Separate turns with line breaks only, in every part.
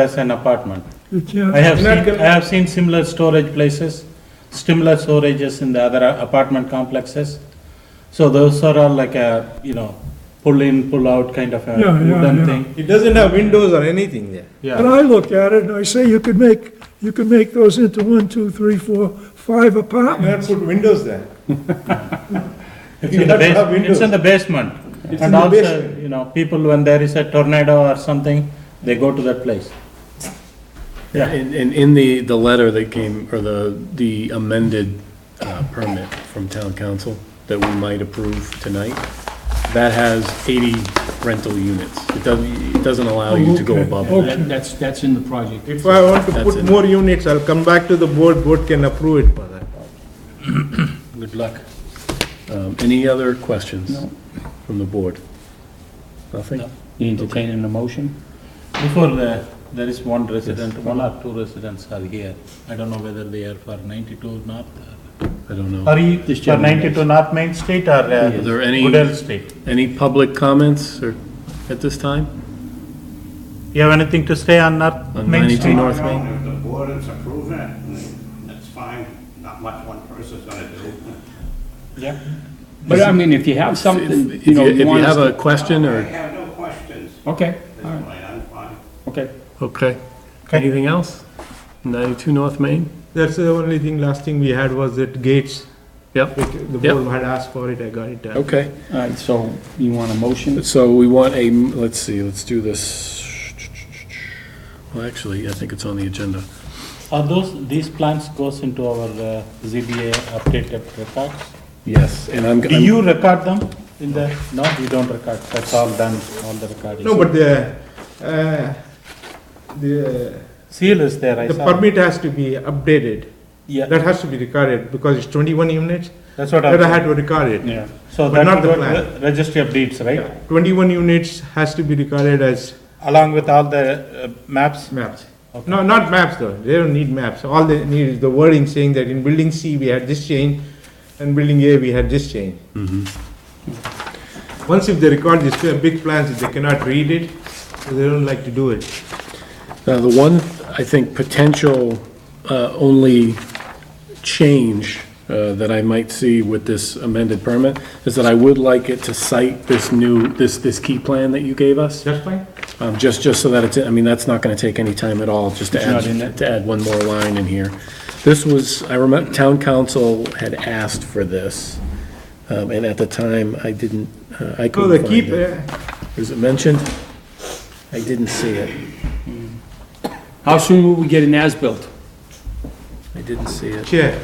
as an apartment.
It's, uh,
I have seen,
not
I have seen similar storage places, similar storages in the other apartment complexes. So those are all like a, you know, pull in, pull out kind of a
Yeah, yeah, yeah.
wooden thing.
It doesn't have windows or anything there.
When I look at it, I say you could make, you could make those into one, two, three, four, five
Not
apartments.
put windows there.
It's
You
in the
have to have
bas, it's in
windows.
the basement.
It's in
And
the
also,
basement.
you know, people when there is a tornado or something, they go to that place. Yeah,
And, and in the, the letter that came, or the, the amended uh, permit from town council that we might approve tonight, that has 80 rental units. It doesn't, it doesn't allow you to go
Okay,
above
okay.
that.
That- That's, that's in the project.
If I want to
That's
put
it.
more units, I'll come back to the board, board can approve it for that.
Good luck. Um, Any other questions from the board? Nothing?
You entertain an emotion?
before the, there is one resident, one or two residents are here. I don't know whether they are for ninety-two north
I don't know.
Are you
This
for
gentleman is.
ninety-two North Main Street or uh,
Is there any-
Goodell Street?
Any public comments or, at this time?
You have anything to say on North
On
Main
92
Street?
North Main?
If the board is approving it, that's fine, not much one person's gonna do.
Yeah.
But I mean, if you have something,
If
you know,
if
you want us
have a
to...
question
I
or,
have no questions,
Okay,
this
all right,
point, I'm fine.
okay.
okay.
Okay.
Anything else? 92 North Main?
That's the only thing, last thing we had was that gates,
Yep.
which the
Yep.
board had asked for it, I got it. uh,
Okay.
All right, so you want a motion?
So we want a, let's see, let's do this. Well, actually, I think it's on the agenda.
Are those, these plans goes into our uh, ZBA updated records?
Yes, and I'm,
Do you record them in the, no, you don't record, that's all done, all the recording.
No, but the, uh, the,
Seal is there, I
the
saw.
permit has to be updated. That
Yeah,
has to be recorded because it's twenty-one units,
that's what
that I had
I,
to record it.
Yeah.
so
but
that
not
will
the
go to
plan.
the registry of deeds, right?
Twenty-one units has to be recorded as
Along with all the uh, maps?
maps.
Okay.
No, not maps though, they don't need maps, all they need is the wording saying that in building C, we had this change, and building A, we had this change. Once if they record these two big plans, if they cannot read it, so they don't like to do it.
now uh, the one, I think, potential uh, only change uh, that I might see with this amended permit is that I would like it to cite this new, this, this key plan that you gave us.
That's fine?
Um, Just, just so that it's, I mean, that's not going to take any time at all, just to
not in
add,
it?
to add one more line in here. This was, I remember, town council had asked for this, um, and at the time, I didn't, uh, I
So the uh,
couldn't
key,
find it. Was it mentioned? I didn't see it.
How soon will we get an as-built?
I didn't see it.
chair,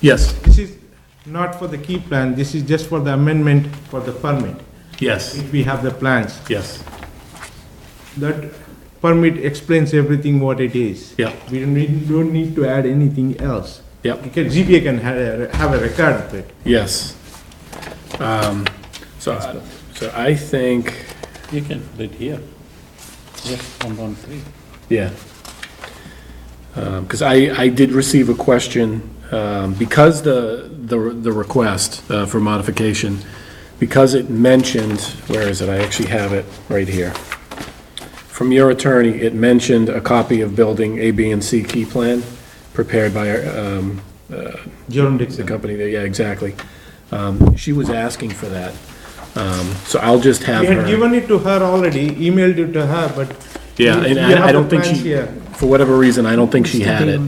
Yes,
this is not for the key plan, this is just for the amendment for the permit,
yes,
if we have the plans.
yes,
That permit explains everything what it is.
yeah,
We don't need, don't need to add anything else.
yeah.
You can, ZBA can have a, have a record of it.
yes. Um, So, I- so I think,
You can do it here. Yes, one, one, three.
Yeah. Because I, I did receive a question, um, because the, the the request uh, for modification, because it mentioned, where is it? I actually have it right here. From your attorney, it mentioned a copy of building A, B, and C key plan prepared by um,
Jerome
the
Dixon.
company, that- yeah, exactly. Um, She was asking for that, Um, so I'll just have
We
her.
had given it to her already, emailed it to her, but.
Yeah, and
You have
I I
the
don't think
plans
she,
here.
for whatever reason, I don't think she had it.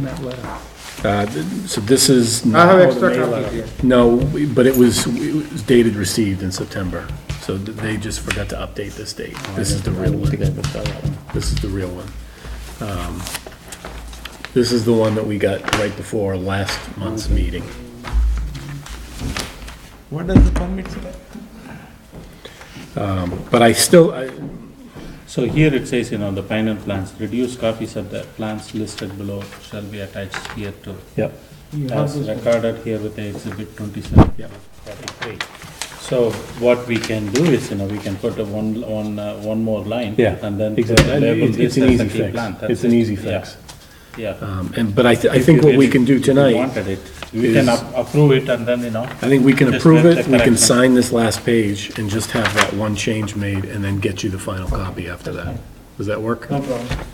Uh, th- So this is. not
have
how the
extra
May
copy
letter-
here.
No, we- but it was it was dated received in September, so th- they just forgot to update this date.
Oh,
This is the real one. This is the real one. Um, This is the one that we got right before last month's meeting.
What does the permit say?
Um, But I still, I-
So here it says, you know, the final plans, reduced copies of the plans listed below shall be attached here to.
Yep.
As recorded here with the exhibit twenty-seven.
Yep.
Forty-three. So what we can do is, you know, we can put a one, one, uh, one more line.
yeah.
And then.
exactly.
label
It's-
this
It's an
as a
easy
key
fix.
plan. That's
It's an
it.
easy
Yeah.
fix.
Yeah.
Um, And, but I, th- I think what we can do
If you
tonight.
Wanted it, we can
is-
ap- approve it and then, you know,
I think we can
Just
approve
make
it,
the
we can
correction.
sign this last page and just have that one change made and then get you the final copy after that. Does that work?